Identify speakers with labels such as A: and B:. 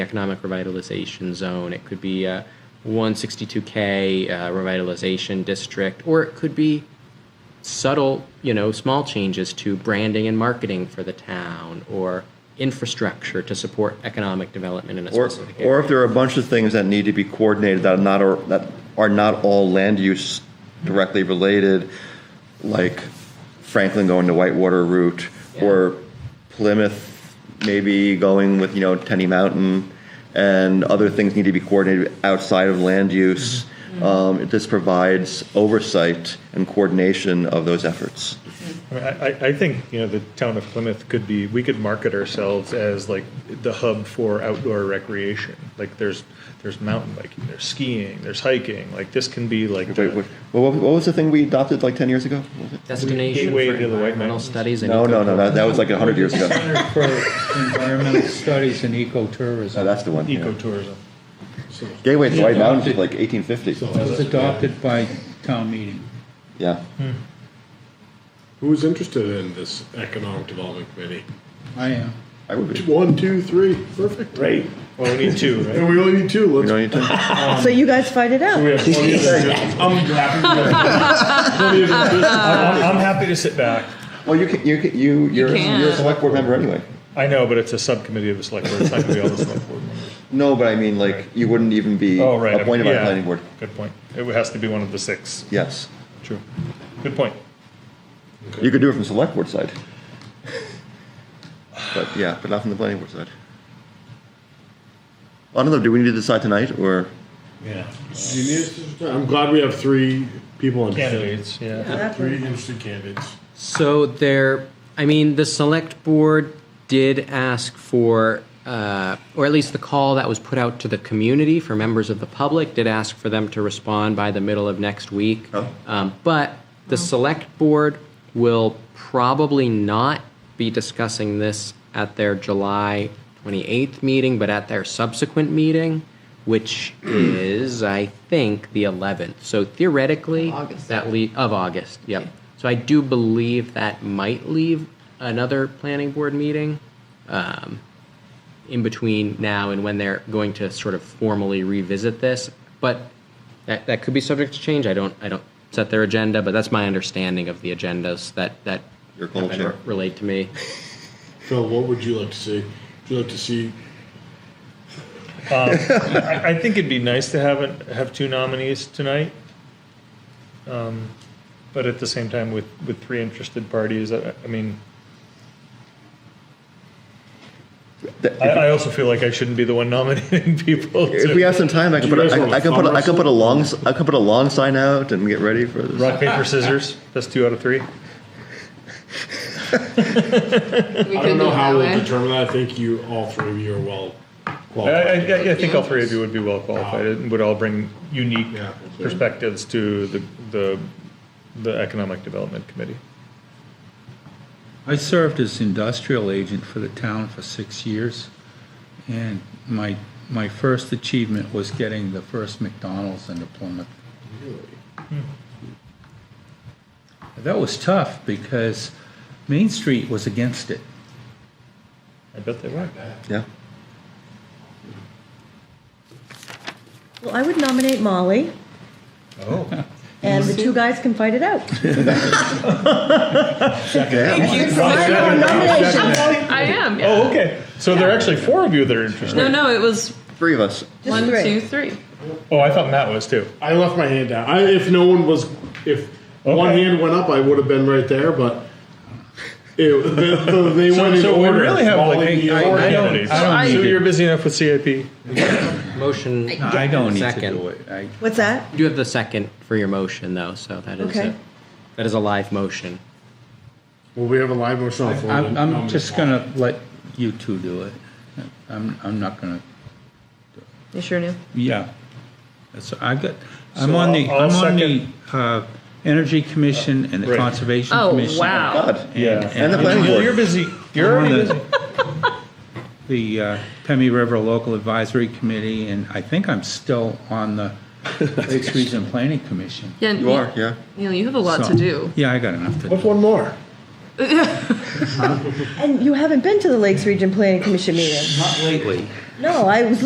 A: economic revitalization zone, it could be a 162K uh, revitalization district, or it could be subtle, you know, small changes to branding and marketing for the town or infrastructure to support economic development in a
B: Or,
A: specific area.
B: or if there are a bunch of things that need to be coordinated that are not, or that are not all land use directly related, like Franklin going to Whitewater route, or Plymouth maybe going with, you know, Tenny Mountain, and other things need to be coordinated outside of land use. Um, this provides oversight and coordination of those efforts.
C: I, mean, I, I- I think you know the town of Plymouth could be. We could market ourselves as like the hub for outdoor recreation. Like there's there's mountain biking, there's skiing, there's hiking. Like this can be like
B: Wait,
C: the-
B: what, what what was the thing we adopted like 10 years ago?
A: destination for
C: Gateway to the White
A: environmental
C: Mountains.
A: studies and
B: No, no, no,
A: eco-
B: that, that was like 100 years ago.
D: Center for Environmental Studies and
B: No,
D: Ecotourism.
B: that's the one. yeah.
C: ecotourism.
B: Gateway to the
D: Yeah.
B: White Mountains is like 1850.
D: It was adopted by town meeting.
B: Yeah.
E: Who's interested in this economic development committee?
D: I uh, am.
B: I would be.
E: One, two, three, perfect.
C: Right. Well, we need two, right?
E: And we only need two,
B: You
E: let's.
B: know, you took-
F: So you guys fight it out.
E: We have plenty of I'm happy. with that.
C: I'm, I'm happy to sit back.
B: Well, you can, you can, you, you're, you're a select board member anyway.
C: I know, but it's a subcommittee of the select board. It's not going to be all the select board members.
B: No, but I mean, like, you wouldn't even be
C: Oh, right.
B: appointed by the
C: yeah.
B: planning board.
C: Good point. It has to be one of the six.
B: Yes.
C: True. Good point.
B: You could do it from select board side. But, yeah, but not from the planning board side. I don't know, do we need to decide tonight, or?
C: Yeah.
E: You need us to- I'm glad we have three people interested.
C: Candidates. Yeah.
E: Three interested candidates.
A: So there, I mean, the select board did ask for, uh, or at least the call that was put out to the community for members of the public did ask for them to respond by the middle of next week.
B: Oh.
A: Um, but the select board will probably not be discussing this at their July 28th meeting, but at their subsequent meeting, which is, I think, the 11th. So theoretically,
G: August.
A: that le- of August. Yep. So I do believe that might leave another planning board meeting um, in between now and when they're going to sort of formally revisit this. But that, that could be subject to change. I don't I don't set their agenda, but that's my understanding of the agendas that that
B: Your
A: have been
B: culture.
A: re- relayed to me.
E: Phil, what would you like to see? Would you like to see
C: I, I think it'd be nice to have it, have two nominees tonight. Um, but at the same time, with, with three interested parties, I, I mean, I, I also feel like I shouldn't be the one nominating people.
B: If
C: to-
B: we have some time, I can
E: Do
B: put,
E: you
B: a-
E: guys want
B: I I can put, a- I
E: thumb
B: can put a long, s- I can put a long sign out and get ready for this.
C: rock paper scissors. That's two out of three.
E: I
G: We could
E: don't
G: do
E: know
G: it
E: how
G: that
E: we'll
G: way.
E: determine that. I think you, all three of you are well
C: I, I,
E: qualified.
C: I- I think all three of you would be well qualified and would all bring unique
E: Yeah.
C: perspectives to the, the the economic development committee.
D: I served as industrial agent for the town for six years, and my, my first achievement was getting the first McDonald's into Plymouth. That was tough because Main Street was against it.
C: I bet they were.
B: Yeah.
F: Well, I would nominate Molly,
C: Oh.
F: and the two guys can fight it out.
B: Yeah.
F: No nomination.
G: I am. yeah.
C: Oh, okay. So there are actually four of you that are interested.
G: No, no, it was
B: Three of us.
G: one,
F: three.
G: two, three.
C: Oh, I thought Matt was too.
E: I left my hand out. I, if no one was, if one
C: Okay.
E: hand went up, I would have been right there, but it, the, the, they
C: So,
E: went in
C: so we
E: order.
C: really have
E: Molly,
C: like eight,
E: you,
C: nine
E: Lauren.
D: I don't-
C: candidates.
D: I don't
C: so
D: need it.
C: you're busy enough with CIP.
A: Motion.
D: No, I don't need to
A: Second.
D: do it. I,
F: What's that?
A: You do have the second for your motion though, so that is
F: Okay.
A: a, that is a live motion.
E: Well, we have a live motion on the floor.
D: I'm,
E: Um,
D: I'm just gonna let you two do it. I'm, I'm not gonna,
F: You sure knew?
D: yeah. That's, I got, I'm
C: So
D: on the,
C: I'll-
D: I'm
C: I'll
D: on the, uh, Energy Commission and the
C: Right.
D: Conservation
G: Oh,
D: Commission.
G: wow.
B: God.
C: Yeah.
B: And the planning
C: You're,
B: board.
C: you're busy. You're
D: I'm on
C: already busy.
D: the, the uh, Pemmy River Local Advisory Committee, and I think I'm still on the Lakes Region Planning Commission.
G: Yeah,
B: You are, yeah.
G: Neil, you have a lot
D: So-
G: to do.
D: Yeah, I got enough to
E: What's
D: do.
E: one more?
F: And you haven't been to the Lakes Region Planning Commission meeting.
D: Not lately.
F: No, I was